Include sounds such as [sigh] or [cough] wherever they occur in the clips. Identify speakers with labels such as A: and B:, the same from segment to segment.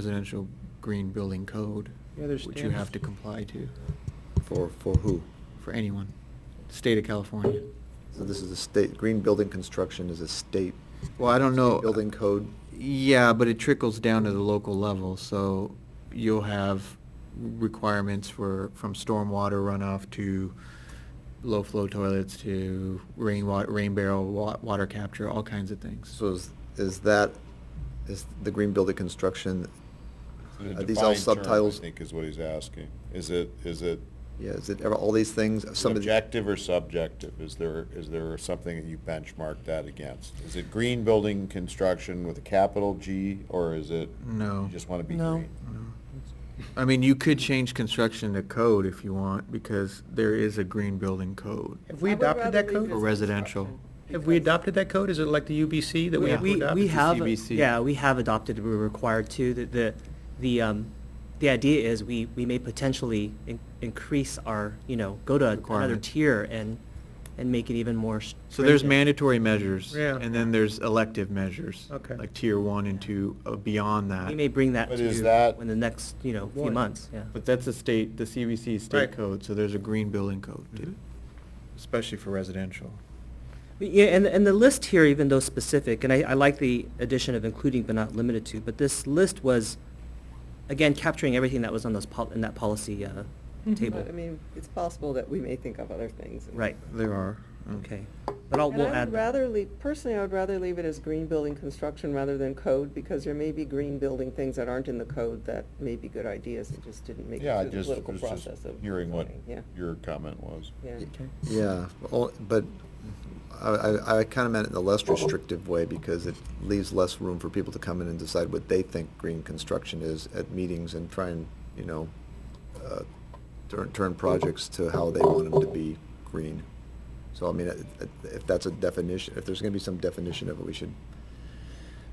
A: residential green building code,
B: Yeah, there's
A: which you
B: standards.
A: have to comply to
C: For, for who?
A: for anyone, state of California.
C: So this is a state, green building construction is a state.
A: Well, I don't know.
C: Building code.
A: Yeah, but it trickles down to the local level, so you'll have requirements for, from stormwater runoff to low-flow toilets to rainwater, rain barrel, wa- water capture, all kinds of things.
C: So is, is that, is the green building construction,
D: In a
C: Are these all
D: defined term,
C: subtitles?
D: I think is what he's asking. Is it, is it
C: yeah, is it ever all these things? some of the-
D: objective or subjective? Is there, is there something that you benchmark that against? Is it green building construction with a capital G, or is it?
A: No.
D: You just want to be
B: No.
D: green?
A: I mean, you could change construction to code if you want, because there is a green building code
B: Have we
E: I would
B: adopted
E: rather
B: that
E: leave
B: code?
E: it
A: for residential.
B: Have we adopted that code? Is it like the UBC that we have to
F: We,
B: adopt?
F: we
A: It's the
F: have,
A: CBC.
F: yeah, we have adopted, we're required to, the, the, the, um, the idea is we, we may potentially in- increase our, you know, go to another
A: Requirement.
F: tier and, and make it even more s-
A: So there's
F: stringent.
A: mandatory measures,
B: Yeah.
A: and then there's elective measures.
B: Okay.
A: Like tier one and two, uh, beyond that.
F: We may bring that
D: But
F: to
D: is
F: you
D: that-
F: in the next, you know, few
B: Right.
F: months, yeah.
A: But that's a state, the CBC state
B: Right.
A: code, so there's a green building code, too,
B: Mhm.
A: especially for residential.
F: Yeah, and, and the list here, even though specific, and I, I like the addition of including but not limited to, but this list was, again, capturing everything that was on those, pol- in that policy, uh,
B: Mhm.
F: table.
E: But, I mean, it's possible that we may think of other things.
F: Right.
A: There are. mm.
F: Okay, but I'll,
E: And
F: we'll add that.
E: I would rather leave, personally, I would rather leave it as green building construction rather than code, because there may be green building things that aren't in the code that may be good ideas, that just didn't make
D: Yeah,
E: it
D: I
E: through the
D: just,
E: political
D: was just
E: process of.
D: hearing what
E: zoning. Yeah,
D: your comment was.
E: yeah.
C: Yeah, all- but I, I, I kind of meant it in a less restrictive way because it leaves less room for people to come in and decide what they think green construction is at meetings and try and, you know, uh, turn, turn projects to how they want them to be green. So I mean, it- it- if that's a definition, if there's going to be some definition of it, we should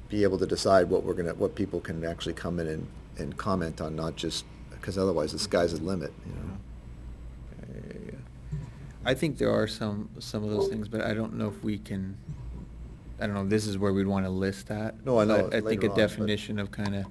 C: be able to decide what we're going to, what people can actually come in and, and comment on, not just, because otherwise the sky's the limit, you know?
A: Mm-hmm. Yeah. I think there are some, some of those things, but I don't know if we can, I don't know, this is where we'd want to list that.
C: No, I know,
A: But I think
C: later
A: a
C: on, but-
A: definition of kind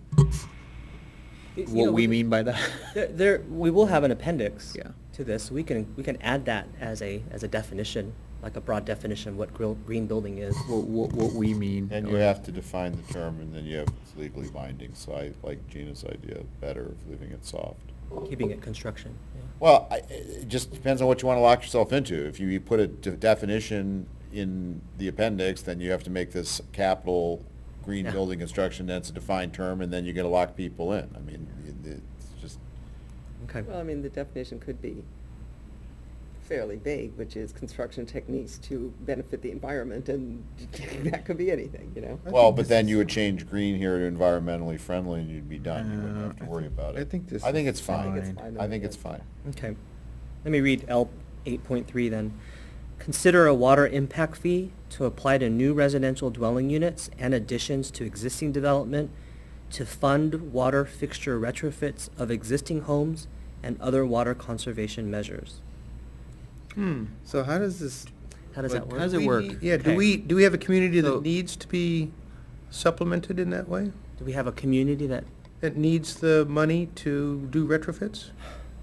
F: You
A: of
F: know,
A: what we
F: could-
A: mean by that. [laughs]
F: There, there, we will have an appendix.
A: Yeah.
F: To this, we can, we can add that as a, as a definition, like a broad definition, of what grill, green building is.
A: What, what, what we mean.
D: And you
A: or-
D: have to define the term, and then you have it's legally binding, so I like Gina's idea better of leaving it soft.
F: Keeping it construction, yeah.
D: Well, I- it just depends on what you want to lock yourself into. If you put a de- definition in the appendix, then you have to make this capital green
F: Yeah.
D: building construction, that's a defined term, and then you're going to lock people in. I mean, it- it's just,
F: Okay.
E: Well, I mean, the definition could be fairly vague, which is construction techniques to benefit the environment, and [laughs] that could be anything, you know?
D: well, but then you would change green here to environmentally friendly, and you'd be done. You wouldn't
A: Uh,
D: have to
A: I
D: worry
A: think-
D: about it.
A: I think this
D: I think
A: is
D: it's fine.
A: I think it's
E: fine.
D: I think it's fine.
F: Okay. Let me read L eight point three then. Consider a water impact fee to apply to new residential dwelling units and additions to existing development to fund water fixture retrofits of existing homes and other water conservation measures.
A: Hmm.
G: So how does this?
F: How does
G: like,
F: that
A: How does
F: work?
A: it work?
B: Yeah, do
F: Okay.
B: we, do we have a community
A: So-
B: that needs to be supplemented in that way?
F: Do we have a community that,
B: That needs the money to do retrofits?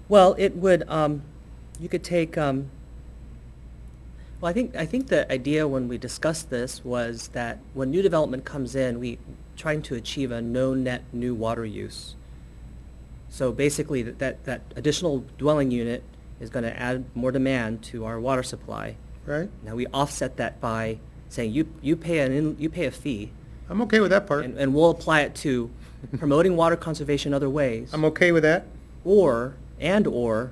F: well, it would, um, you could take, um, well, I think, I think the idea when we discussed this was that when new development comes in, we trying to achieve a no net new water use. So basically, that, that, that additional dwelling unit is gonna add more demand to our water supply.
B: Right?
F: Now, we offset that by saying, you, you pay an, in- you pay a fee,
B: I'm okay with that part.
F: and, and we'll apply it to promoting water conservation other ways.
B: I'm okay with that.
F: or and or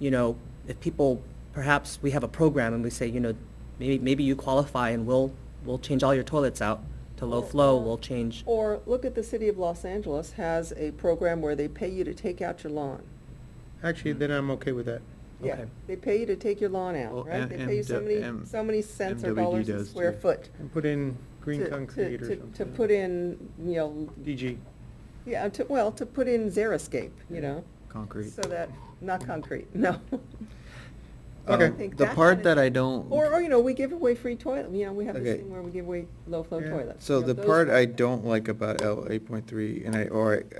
F: you know if people perhaps we have a program and we say you know maybe maybe you qualify and we'll we'll change all your toilets out to low
E: Or-
F: flow
E: or-
F: we'll change
E: Or, look at the city of Los Angeles has a program where they pay you to take out your lawn.
B: Actually, then I'm okay with that.
E: Yeah,
F: Okay.
E: they pay you to take your lawn
A: Well,
E: out, right? They
A: M-
E: pay you so many,
A: M-
E: so many cents or
A: MWD
E: dollars a
A: does,
E: square
A: too.
E: foot.
B: And put in green
E: to- to-
B: concrete or
E: to-
B: something.
E: To put in, you know,
B: DG.
E: yeah, to, well, to put in xeriscape, you know,
A: Concrete.
E: so that, not
A: [laughs]
E: concrete, [laughs] no.
B: Okay.
E: I think
A: The
E: that
A: part
E: kinda-
A: that I don't.
E: Or, or, you know, we give away free toilet, you know, we have this
G: Okay.
E: thing where we give away low-flow
B: Yeah.
E: toilets.
G: So
E: you know,
G: the
E: those
G: part
E: kinda
G: I
E: things.
G: don't like about L eight point three, and I, or I-